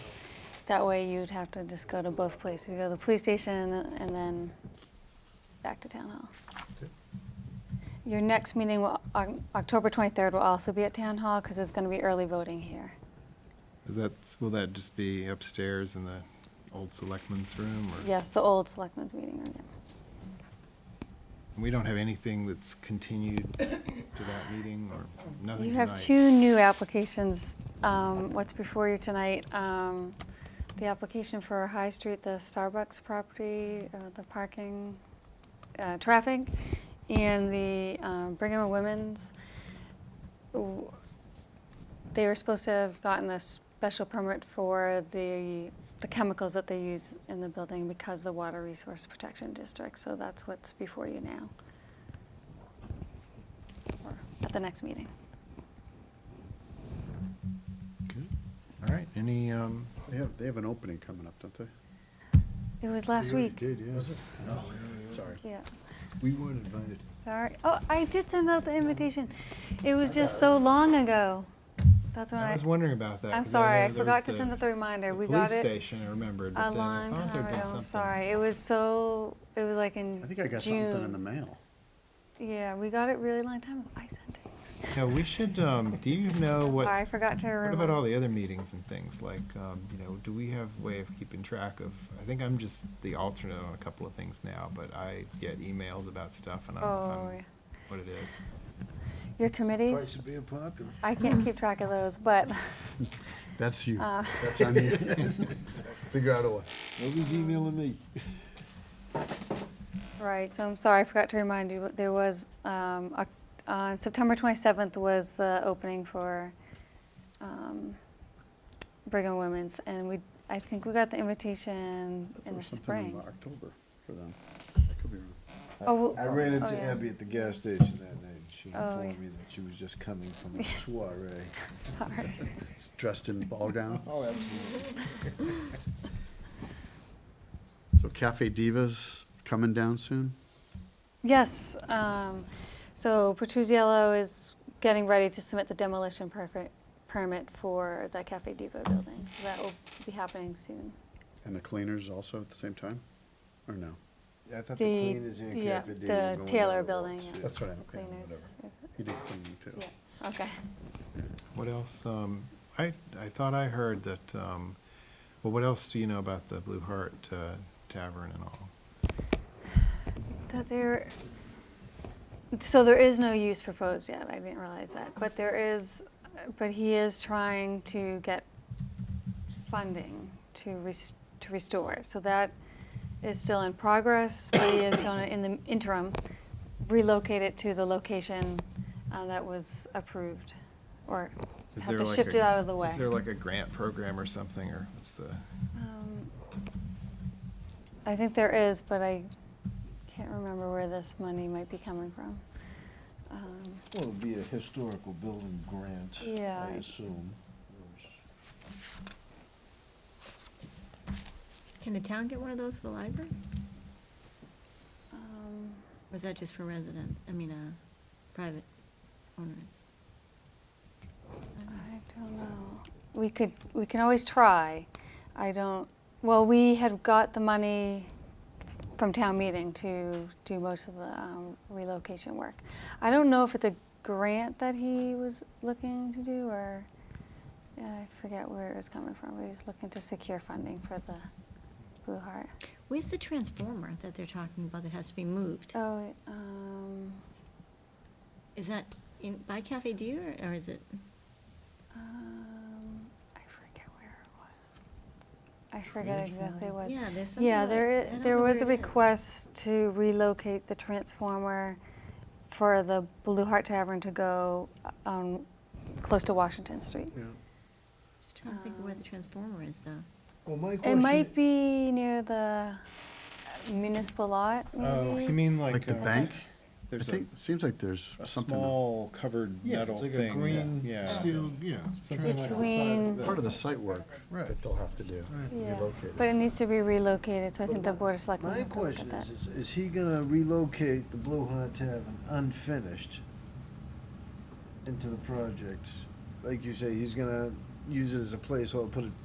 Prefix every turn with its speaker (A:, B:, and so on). A: That way you'd have to just go to both places. You go to the police station and then back to town hall. Your next meeting, will- Oc- October 23rd, will also be at town hall because it's going to be early voting here.
B: Is that, will that just be upstairs in the old selectmen's room? or-
A: Yes, the old selectmen's meeting room. yeah.
B: We don't have anything that's continued to that meeting or nothing
A: You have
B: tonight?
A: two new applications. um, What's before you tonight? um, The application for High Street, the Starbucks property, uh, the parking, uh, traffic, and the um, Brigham Women's. W- They were supposed to have gotten a special permit for the, the chemicals that they use in the building because the Water Resource Protection District, so that's what's before you now. Or At the next meeting.
B: Good. All right, any, um,
C: They have, they have an opening coming up, don't they?
A: It was last week.
C: did, yeah. Sorry.
A: Yeah.
C: We weren't invited.
A: Sorry. Oh, I did send out the invitation. It was just so long ago. That's when
B: I
A: I,
B: was wondering about that.
A: I'm
B: 'cause
A: sorry,
B: know
A: I
B: there
A: forgot
B: was
A: to send out the reminder. We
B: police
A: got it
B: station, I remembered,
A: a
B: but then I
A: long
B: thought
A: time
B: there'd been
A: ago. I'm
B: something.
A: sorry. It was so, it was like in
C: I think I got something in the
A: June.
C: mail.
A: Yeah, we got it really long time ago. I sent it.
B: Yeah, we should, um, do you know what,
A: Sorry, I forgot to
B: what about all
A: remember.
B: the other meetings and things? Like, um, you know, do we have a way of keeping track of, I think I'm just the alternate on a couple of things now, but I get emails about stuff and I don't know
A: Oh,
B: if I'm,
A: yeah.
B: what it is.
A: Your committees?
C: of being popular.
A: I can't keep track of those, but
C: That's you.
A: uh,
C: That's on you. Figure out a way. Nobody's emailing me.
A: Right, so I'm sorry, I forgot to remind you, but there was, um, Oc- on September 27th was the opening for um, Brigham Women's, and we, I think we got the invitation in the spring.
C: October for them. I could be wrong.
A: Oh,
D: I ran
A: oh,
D: into
A: yeah.
D: Abby at the gas station that night. She
A: Oh,
D: informed
A: yeah.
D: me that she was just coming from a soiree.
A: Sorry.
C: Dressed in ball gown.
D: Oh, absolutely.
C: So Cafe Divas coming down soon?
A: Yes, um, so Petruzzello is getting ready to submit the demolition perfect permit for the Cafe Diva building, so that will be happening soon.
C: And the cleaners also at the same time? Or no?
D: Yeah, I thought the
A: The-
D: cleaners and
A: yeah,
D: Cafe Dini
A: the
D: were going
A: Taylor
D: down the
A: building,
D: walks,
A: yeah.
D: yeah.
C: That's what I, yeah, whatever.
A: Cleaners,
C: He did cleaning too.
A: yeah, okay.
B: What else? Um, I, I thought I heard that, um, well, what else do you know about the Blue Heart uh, Tavern and all?
A: That there, so there is no use proposed yet, I didn't realize that, but there is, but he is trying to get funding to res, to restore, so that is still in progress, but he is gonna, in the interim, relocate it to the location uh, that was approved, or
B: Is
A: have
B: there
A: to
B: like
A: shift
B: a-
A: it out of the way.
B: Is there like a grant program or something, or what's the,
A: Um, I think there is, but I can't remember where this money might be coming from. Um,
D: Well, it'd be a historical building grant,
A: Yeah.
D: I assume.
E: Can the town get one of those to the library?
A: um,
E: Or is that just for resident, I mean, uh, private owners?
A: I don't know. We could, we can always try. I don't, well, we had got the money from town meeting to do most of the um, relocation work. I don't know if it's a grant that he was looking to do or, yeah, I forget where it was coming from, but he's looking to secure funding for the Blue Heart.
E: Where's the transformer that they're talking about that has to be moved?
A: Oh, um,
E: Is that in, by Cafe Dieu, or or is it,
A: um, I forget where it was. I forget
D: Transformer?
A: exactly what.
E: yeah, there's something.
A: Yeah,
E: about-
A: there,
E: I
A: i-
E: don't
A: there
E: know
A: was a
E: where it is.
A: request to relocate the transformer for the Blue Heart Tavern to go um, close to Washington Street.
C: Yeah.
E: Just trying to think of where
A: um,
E: the transformer is, though.
D: Well, my
A: It
D: question.
A: might be near the municipal lot,
B: oh, you
A: maybe?
B: mean like.
C: Like the
B: uh,
C: bank? I
B: There's a,
C: think, seems like there's
B: a
C: something.
B: small covered
D: Yeah,
B: metal thing.
D: it's like a
B: yeah.
D: green steel, yeah. something like the size of
A: Between-
D: that.
C: Part of the site work
D: Right.
C: that they'll have to do.
D: Right.
A: Yeah,
C: Relocate
A: but it needs to be relocated, so I
D: But
A: think the
D: my-
A: Board of Selectmen
D: My
A: have to look at
D: question
A: that.
D: is, is, is he gonna relocate the Blue Heart Tavern unfinished into the project? Like you say, he's gonna use it as a placeholder, put it